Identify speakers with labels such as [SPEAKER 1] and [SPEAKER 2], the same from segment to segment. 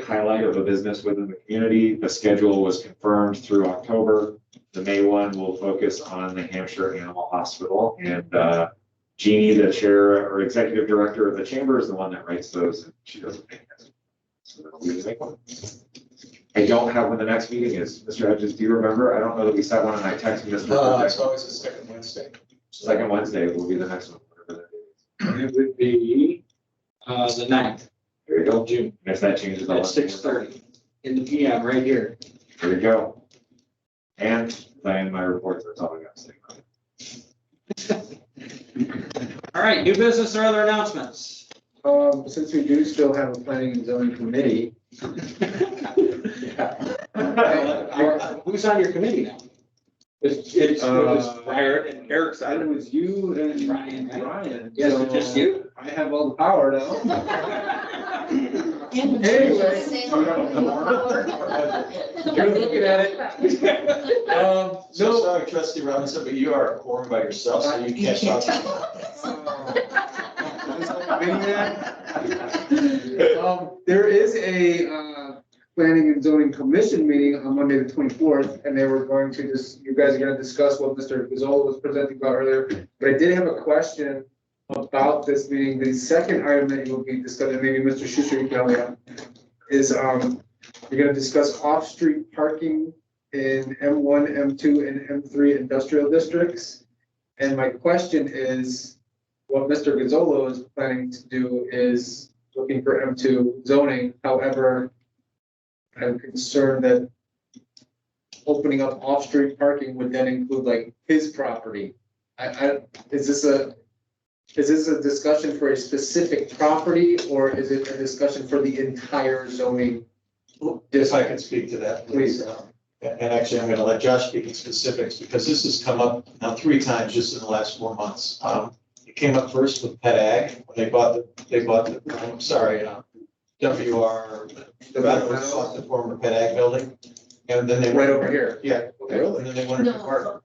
[SPEAKER 1] highlight of a business within the community. The schedule was confirmed through October. The May one will focus on the Hampshire Animal Hospital and, uh, Jeannie, the chair or executive director of the chamber is the one that writes those. and She doesn't make it. So we just make one. I don't have when the next meeting is. Mr. Hedges, do you remember? I don't know that we set one and I texted Mr.
[SPEAKER 2] Uh,
[SPEAKER 1] Hedges.
[SPEAKER 2] it's always the second Wednesday.
[SPEAKER 1] Second Wednesday will be the next one. whatever that is.
[SPEAKER 3] It would be, uh, the ninth
[SPEAKER 1] There you go.
[SPEAKER 3] of June
[SPEAKER 1] And if that changes. I'll let you
[SPEAKER 3] at
[SPEAKER 1] know.
[SPEAKER 3] six thirty in the PM right here.
[SPEAKER 1] There you go. And then my reports are telling us.
[SPEAKER 3] All right, new business or other announcements?
[SPEAKER 4] Um, since we do still have a planning and zoning committee,
[SPEAKER 3] Uh, Who's on your committee now? It's, it's,
[SPEAKER 4] Uh,
[SPEAKER 3] Eric and Eric's
[SPEAKER 4] I
[SPEAKER 3] on it.
[SPEAKER 4] was you and
[SPEAKER 3] Ryan, right?
[SPEAKER 4] Ryan.
[SPEAKER 3] Yes,
[SPEAKER 4] so
[SPEAKER 3] it's just you.
[SPEAKER 4] I have all the power now.
[SPEAKER 1] Anyway.
[SPEAKER 4] You're looking at it. Um,
[SPEAKER 2] So
[SPEAKER 4] no,
[SPEAKER 2] sorry, trustee Robinson, but you are a quorum by yourself, so you can't talk.
[SPEAKER 4] uh, um, there is a, uh, planning and zoning commission meeting on Monday, the twenty-fourth, and they were going to just, you guys are gonna discuss what Mr. Gazzola was presenting about earlier. But I did have a question about this meeting. The second item that you'll be discussing, maybe Mr. Schuster can help me out, is, um, you're gonna discuss off-street parking in M one, M two, and M three industrial districts. And my question is, what Mr. Gazzola is planning to do is looking for M two zoning, however, I'm concerned that opening up off-street parking would then include like his property. I, I, is this a, is this a discussion for a specific property, or is it a discussion for the entire zoning?
[SPEAKER 2] If I could speak to that, please.
[SPEAKER 4] Please.
[SPEAKER 2] Um, And and actually, I'm going to let Josh speak in specifics because this has come up now three times just in the last four months. Um, It came up first with Pet Ag, when they bought the, they bought the, I'm sorry, uh, WR, the veterans bought the former Pet Ag building. And then they,
[SPEAKER 4] Right over here,
[SPEAKER 2] yeah, and then they wanted to
[SPEAKER 5] No.
[SPEAKER 2] park.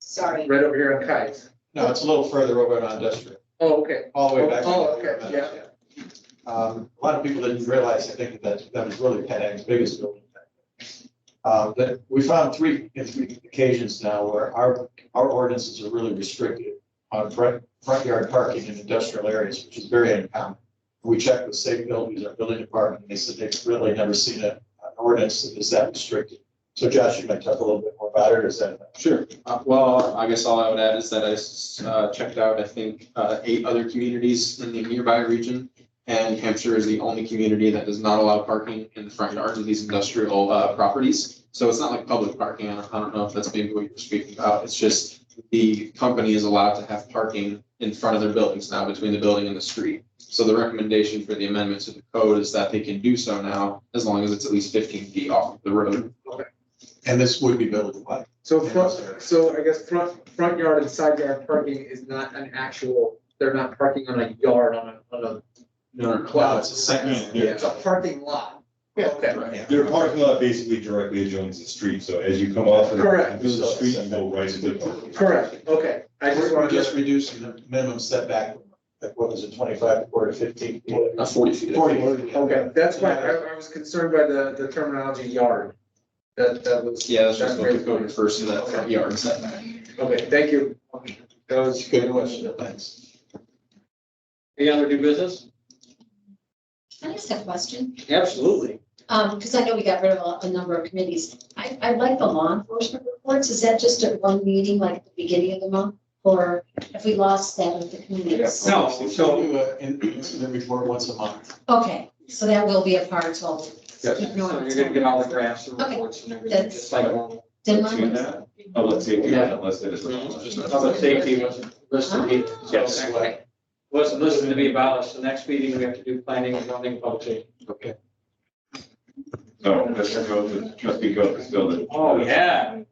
[SPEAKER 5] Sorry.
[SPEAKER 4] right over here on Kites.
[SPEAKER 2] No, it's a little further over on industrial.
[SPEAKER 4] Oh, okay.
[SPEAKER 2] All the way back.
[SPEAKER 4] Oh, okay, yeah.
[SPEAKER 2] Um, a lot of people didn't realize, I think, that that was really Pat Ag's biggest building. Uh, but we found three, in three occasions now where our, our ordinances are really restricted on front, front yard parking in industrial areas, which is very uncommon. We checked with Safe Buildings, our building department, and they said they've really never seen a, an ordinance that is that restricted. So Josh, you might talk a little bit more about it, or is that?
[SPEAKER 6] Sure. Uh, Well, I guess all I would add is that I s- uh, checked out, I think, uh, eight other communities in the nearby region. And Hampshire is the only community that does not allow parking in the front yards of these industrial uh, properties. So it's not like public parking. I don't- I don't know if that's maybe what you're speaking about. It's just the company is allowed to have parking in front of their buildings now, between the building and the street. So the recommendation for the amendment to the code is that they can do so now, as long as it's at least fifteen feet off the road.
[SPEAKER 2] And this would be building wide.
[SPEAKER 4] So front, so I guess front, front yard and side yard parking is not an actual, they're not parking on a yard on a, on a.
[SPEAKER 6] No, no,
[SPEAKER 2] Wow, it's a second.
[SPEAKER 7] Yeah.
[SPEAKER 4] It's a parking lot. Okay.
[SPEAKER 2] Yeah.
[SPEAKER 7] Their parking lot basically directly adjoins the street, so as you come off of the-
[SPEAKER 4] Correct.
[SPEAKER 7] the street, you go right into the parking.
[SPEAKER 4] Correct, okay. I just
[SPEAKER 2] We're
[SPEAKER 4] wanted
[SPEAKER 2] just
[SPEAKER 4] to,
[SPEAKER 2] reducing the minimum setback, like what was it, twenty-five, four to fifteen?
[SPEAKER 6] Uh, forty feet. I think.
[SPEAKER 2] Forty.
[SPEAKER 4] okay, that's why I, I was concerned by the, the terminology yard. That, that was.
[SPEAKER 6] Yeah, that's just what
[SPEAKER 4] very
[SPEAKER 6] the code first to that front yard setback.
[SPEAKER 4] Okay, thank you.
[SPEAKER 2] That was a good question, thanks.
[SPEAKER 3] Any other new business?
[SPEAKER 5] Can I ask a question?
[SPEAKER 3] Absolutely.
[SPEAKER 5] Um, because I know we got rid of a, a number of committees. I, I like the law enforcement reports. Is that just at one meeting, like at the beginning of the month? Or if we lost that with the committees?
[SPEAKER 3] No,
[SPEAKER 2] So uh, we do an incident report once a month.
[SPEAKER 5] Okay, so that will be a part, so I'll
[SPEAKER 6] Yes.
[SPEAKER 5] keep
[SPEAKER 3] So
[SPEAKER 5] note
[SPEAKER 3] you're
[SPEAKER 5] of
[SPEAKER 3] gonna
[SPEAKER 5] it.
[SPEAKER 3] get all the graphs and
[SPEAKER 5] Okay.
[SPEAKER 3] reports and everything,
[SPEAKER 5] That's-
[SPEAKER 3] just like normal.
[SPEAKER 5] Then
[SPEAKER 1] To
[SPEAKER 5] mine was-
[SPEAKER 1] that, Public safety, unless it is.
[SPEAKER 3] Public safety was listed. here. So
[SPEAKER 1] Yes.
[SPEAKER 3] next week, Wasn't listed to be abolished. The next meeting, we have to do planning and zoning public safety.
[SPEAKER 1] No, Mr. Goff, trustee Goff is still the.
[SPEAKER 3] Oh, yeah.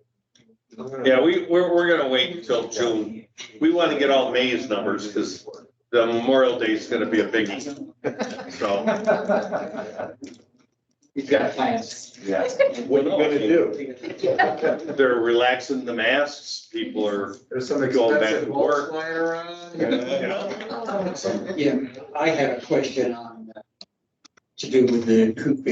[SPEAKER 8] Yeah, we, we're, we're gonna wait until June. We want to get all May's numbers because the Memorial Day is gonna be a biggie. So,
[SPEAKER 3] He's got plans.
[SPEAKER 1] Yeah.
[SPEAKER 8] what are you gonna do?
[SPEAKER 4] There's
[SPEAKER 8] They're relaxing the masks. People are,
[SPEAKER 4] some
[SPEAKER 8] Going back to
[SPEAKER 4] expensive
[SPEAKER 8] work.
[SPEAKER 4] mulch lying around.
[SPEAKER 5] Oh.
[SPEAKER 3] Yeah, I had a question on, uh, to do with the coop